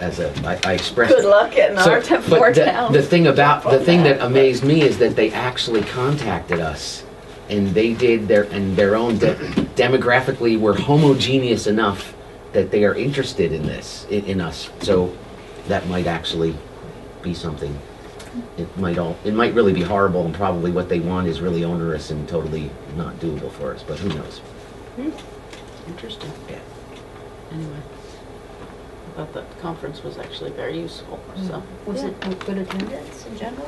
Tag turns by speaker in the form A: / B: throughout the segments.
A: as a, I, I expressed.
B: Good
A: it.
B: luck getting
A: So-
B: our town,
A: but
B: four
A: the-
B: towns.
A: The thing about, the
B: from
A: thing
B: that.
A: that amazed me is that they actually contacted us and they did their, and their own de- demographically were homogeneous enough that they are interested in this, in, in us. So that might actually be something. It might all, it might really be horrible and probably what they want is really onerous and totally not doable for us, but who knows?
C: Interesting.
A: Yeah.
C: Anyway, I thought that conference was actually very useful,
D: Hmm.
C: so.
D: Was it a good attendance in general?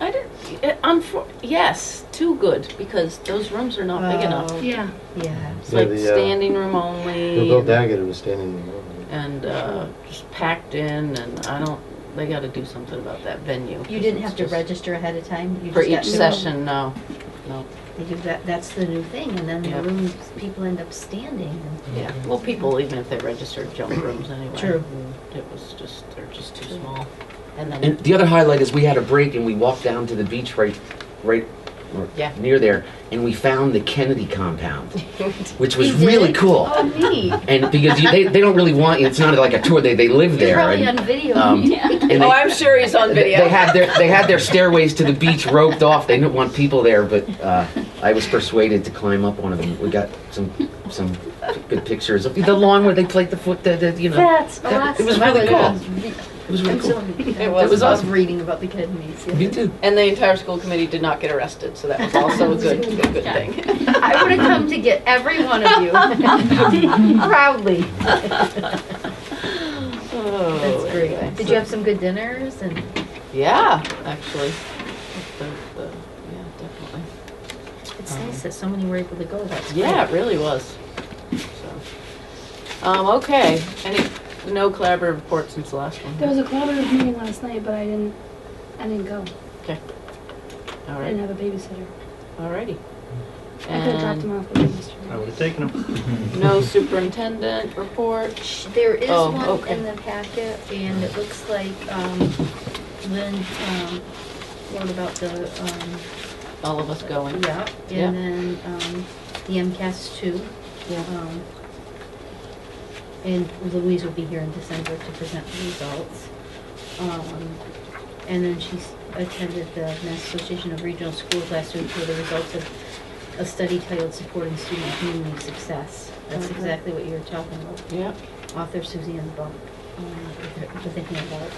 C: I didn't, eh, unfor, yes, too good, because those rooms are not big enough.
E: Yeah.
D: Yeah.
C: It's
F: Yeah,
C: like
F: the, uh,
C: standing room only.
F: Bill
C: and-
F: Daggett was standing in the room.
C: And, uh, just packed in, and I don't, they gotta do something about that venue.
D: You
C: 'cause
D: didn't
C: it's
D: have to
C: just-
D: register ahead of time? You
C: For
D: just got
C: each
D: new-
C: session, no, no.
D: They do that- That's the new thing, and then
C: Yeah.
D: the rooms, people end up standing. and-
C: Yeah, well, people, even if they registered, jump rooms anyway.
D: True.
C: It was just, they're just too small. And
A: And
C: then,
A: the other highlight is we had a break and we walked down to the beach right, right or
C: Yeah.
A: near there, and we found the Kennedy compound, which was
D: You did?
A: really cool.
D: Oh, neat.
A: And because you, they, they don't really want you, it's not like a tour. They they live
D: You're
A: there.
D: probably
A: and,
D: on video.
A: um, and they,
B: Oh, I'm sure he's on
A: they-
B: video.
A: they had their they had their stairways to the beach roped off. They didn't want people there, but uh, I was persuaded to climb up one of them. We got some some good pictures of the lawn where they played the foot. The, the, you know,
D: That's
A: that-
D: awesome.
A: it was really
D: Oh,
A: cool.
D: yeah.
A: it was really
D: I'm
A: cool.
D: still, I
C: It
D: was,
A: was awesome.
D: reading about the Kid Meets.
A: Me too.
C: and the entire school committee did not get arrested, so that was also a good, a good thing.
D: I would have come to get every one of you proudly.
C: Oh,
D: That's great.
C: anyway,
D: Did
C: so-
D: you have some good dinners and?
C: Yeah, actually. The- the- yeah, definitely.
D: It's nice that so many were able to go. That's great.
C: Yeah, it really was. So, um, okay. Any no collaborative reports since the last one.
E: There was a collaborative meeting last night, but I didn't, I didn't go.
C: All
E: I didn't
C: right.
E: have a babysitter.
C: Alrighty.
E: I could have dropped
C: And
E: him off with him yesterday.
F: I would have taken him.
C: no superintendent report.
D: Sh- There is
C: Oh,
D: one
C: okay.
D: in the packet, and it looks like um, Lynn um, wrote about the, um,
C: All of us going.
D: yeah,
C: Yeah.
D: and then um, the MCAS two.
C: Yeah.
D: um, And Louise will be here in December to present the results. Um, And then she's attended the Mass Association of Regional Schools last week for the results of a study titled Supporting Student Community Success. That's
C: Mhm.
D: exactly what you were talking about
C: Yeah.
D: author Suzanne Bump, um, to thinking about.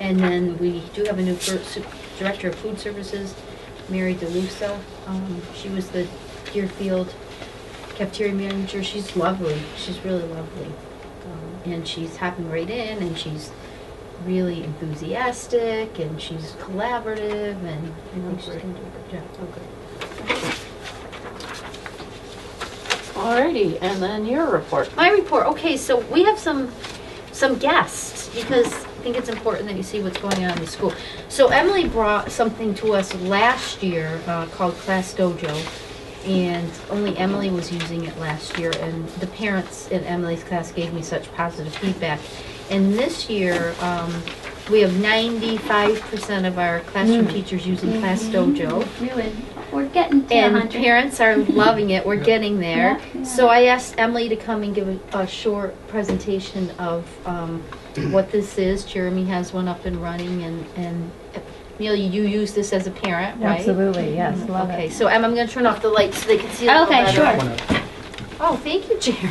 D: And then we do have a new fir- su- Director of Food Services, Mary DeLuca. Um, She was the Deerfield cafeteria manager. She's lovely. She's really lovely. Um, And she's hopping right in and she's really enthusiastic and she's collaborative and I think she's gonna do a good job. Okay.
C: Alrighty. And then your report.
D: My report, okay, so we have some, some guests, because I think it's important that you see what's going on in the school. So Emily brought something to us last year uh, called Class Dojo, and only Emily was using it last year, and the parents in Emily's class gave me such positive feedback. And this year, um, we have ninety-five percent of our classroom teachers using Class Dojo.
E: Really?
G: We're getting to
D: And
G: 100.
D: parents are loving it. We're getting there.
G: Yeah.
D: So I asked Emily to come and give a, a short presentation of um, what this is. Jeremy has one up and running, and and Amelia, you use this as a parent, right?
H: Absolutely, yes, love
D: Okay,
H: it.
D: so Em, I'm going to turn off the lights so they can see. a little
G: Okay,
D: better.
G: sure.
D: Oh, thank you, Jeremy.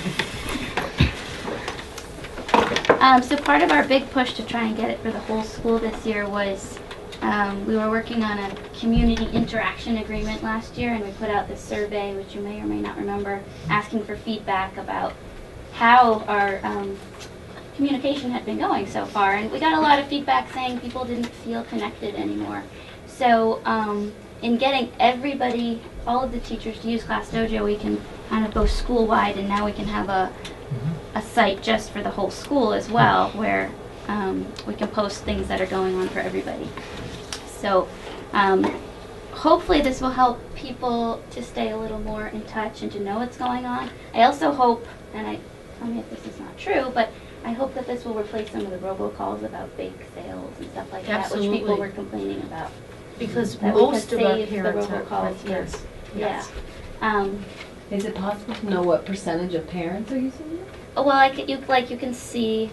G: Um, so part of our big push to try and get it for the whole school this year was um, we were working on a community interaction agreement last year, and we put out this survey, which you may or may not remember, asking for feedback about how our um, communication had been going so far. And we got a lot of feedback saying people didn't feel connected anymore. So um, in getting everybody, all of the teachers to use Class Dojo, we can kind of go school wide, and now we can have a a site just for the whole school as well, where um, we can post things that are going on for everybody. So um, hopefully this will help people to stay a little more in touch and to know what's going on. I also hope, and I tell me if this is not true, but I hope that this will replace some of the robocalls about bake sales and stuff like that, which people
D: Absolutely.
G: were complaining about.
D: Because
G: That we could
D: most of our
G: save the
D: parents are
G: robocalls, yeah.
D: yes.
G: Yeah. Um, oh,
I: Is it possible to know what percentage of parents are using it?
G: Well, I c you, like you can see